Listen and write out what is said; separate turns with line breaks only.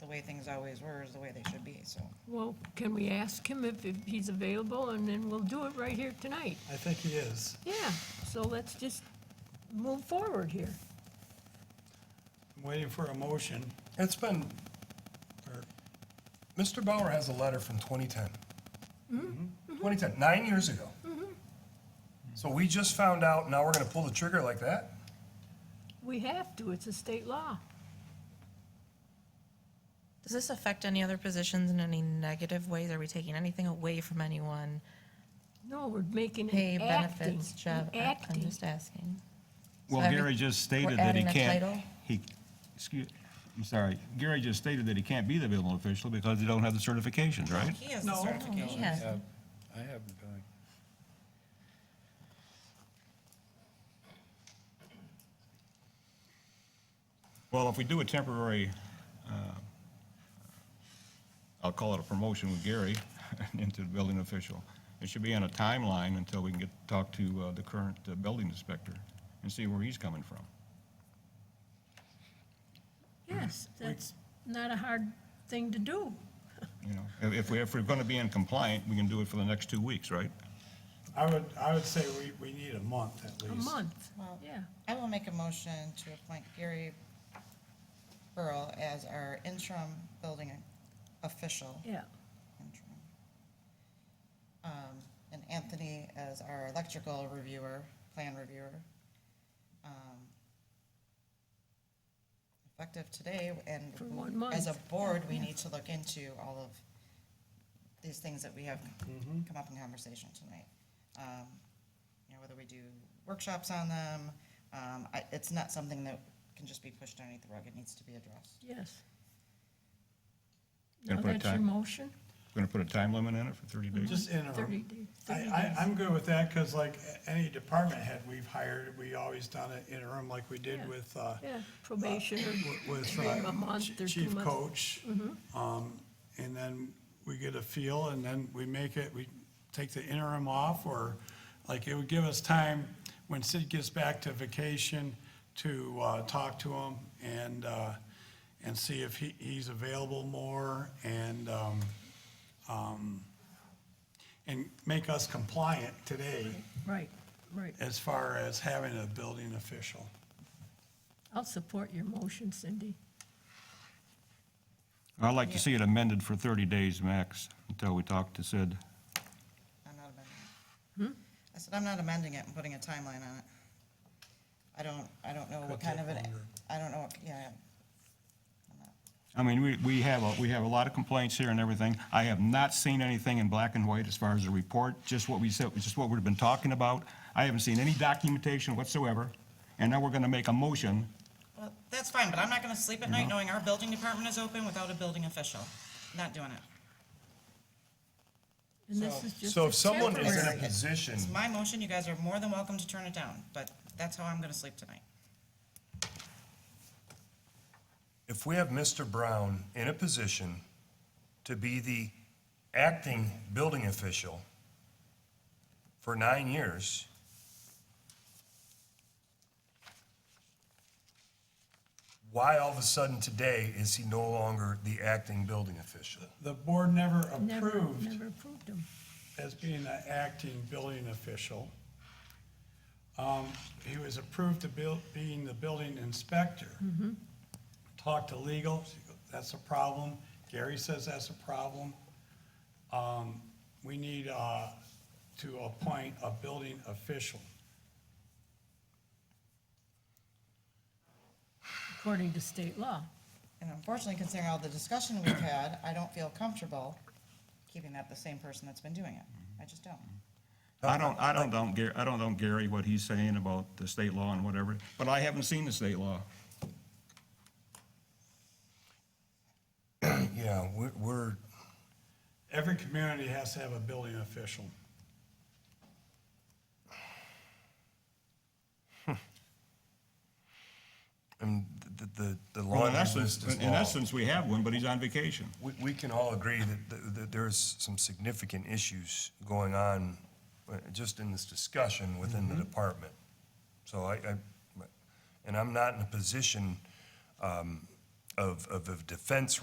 the way things always were is the way they should be, so.
Well, can we ask him if, if he's available, and then we'll do it right here tonight?
I think he is.
Yeah, so let's just move forward here.
I'm waiting for a motion.
It's been, or, Mr. Bauer has a letter from 2010.
Mm-hmm.
2010, nine years ago. So we just found out, now we're gonna pull the trigger like that?
We have to, it's a state law.
Does this affect any other positions in any negative ways? Are we taking anything away from anyone?
No, we're making
Pay,
it acting,
benefits, job? I- I'm
acting.
just asking.
Well,
So
Gary
every-
just
we're
stated that he
adding a
can't,
title?
he, excuse, I'm sorry, Gary just stated that he can't be the building official because he don't have the certifications, right?
He has the
No.
certification.
Yeah.
have- I haven't been.
Well, if we do a temporary, uh, I'll call it a promotion with Gary into the building official, it should be on a timeline until we can get, talk to uh, the current uh, building inspector and see where he's coming from.
Yes, that's not a hard thing to do.
You know, if- if we, if we're going to be in compliant, we can do it for the next two weeks, right?
I would, I would say we, we need a month at
A
least.
month,
Well,
yeah.
I will make a motion to appoint Gary Burl as our interim building official.
yeah.
interim, um, And Anthony as our electrical reviewer, plan reviewer. um, Effective today, and
For one month.
as a board, we need to look into all of these things that we have come up in conversation tonight. Um, You know, whether we do workshops on them, um, I- it's not something that can just be pushed underneath the rug, it needs to be addressed.
Yes.
Gonna
Now
put a
that's your
time-
motion?
Going to put a time limit on it for 30 days?
Just
Thirty
interim.
days.
I, I, I'm good with that, cause like a- any department head we've hired, we always done it interim like we did
Yeah.
with, uh,
Yeah, probation
wi-
or
with,
three
uh,
a month
Ch-
or two
Chief
months. Mm-hmm.
Coach. Um, and then we get a feel and then we make it, we take the interim off or, like, it would give us time when Sid gets back to vacation to, uh, talk to him and, uh, and see if he, he's available more and, um, um, and make us compliant today
Right, right.
as far as having a building official.
I'll support your motion, Cindy.
I'd like to see it amended for 30 days max until we talk to Sid.
I'm not amending it. I said, I'm not amending it and putting a timeline on it. I don't, I don't know what kind of an, I don't know, what- yeah,
I mean, we, we have, a- we have a lot of complaints here and everything. I have not seen anything in black and white as far as the report, just what we said, just what we've been talking about. I haven't seen any documentation whatsoever, and now we're gonna make a motion.
well, that's fine, but I'm not gonna sleep at night knowing our building department is open without a building official. Not doing it.
And this is just
So
a
if someone is in a
temporary-
position,
It's my motion, you guys are more than welcome to turn it down, but that's how I'm gonna sleep tonight.
if we have Mr. Brown in a position to be the acting building official for nine years, why all of a sudden today is he no longer the acting building official?
The board never
Never,
approved
Never approved them.
as being an acting building official. Um, He was approved to buil- being the building inspector. Talked to legal, she goes, that's a problem. Gary says that's a problem. Um, We need uh, to appoint a building official.
according to state law.
And unfortunately, considering all the discussion we've had, I don't feel comfortable keeping that the same person that's been doing it. I just don't.
I don't, I don't, don't Gary, I don't, don't Gary what he's saying about the state law and whatever, but I haven't seen the state law.
Yeah, we're, we're,
Every community has to have a building official.
and the, the, the
Well,
laundry
in essence,
list is
in
long.
essence, we have one, but he's on vacation.
We, we can all agree that, th- that there's some significant issues going on uh, just in this discussion within the
Mm-hmm.
department. So I, I, and I'm not in a position, um, of, of a defense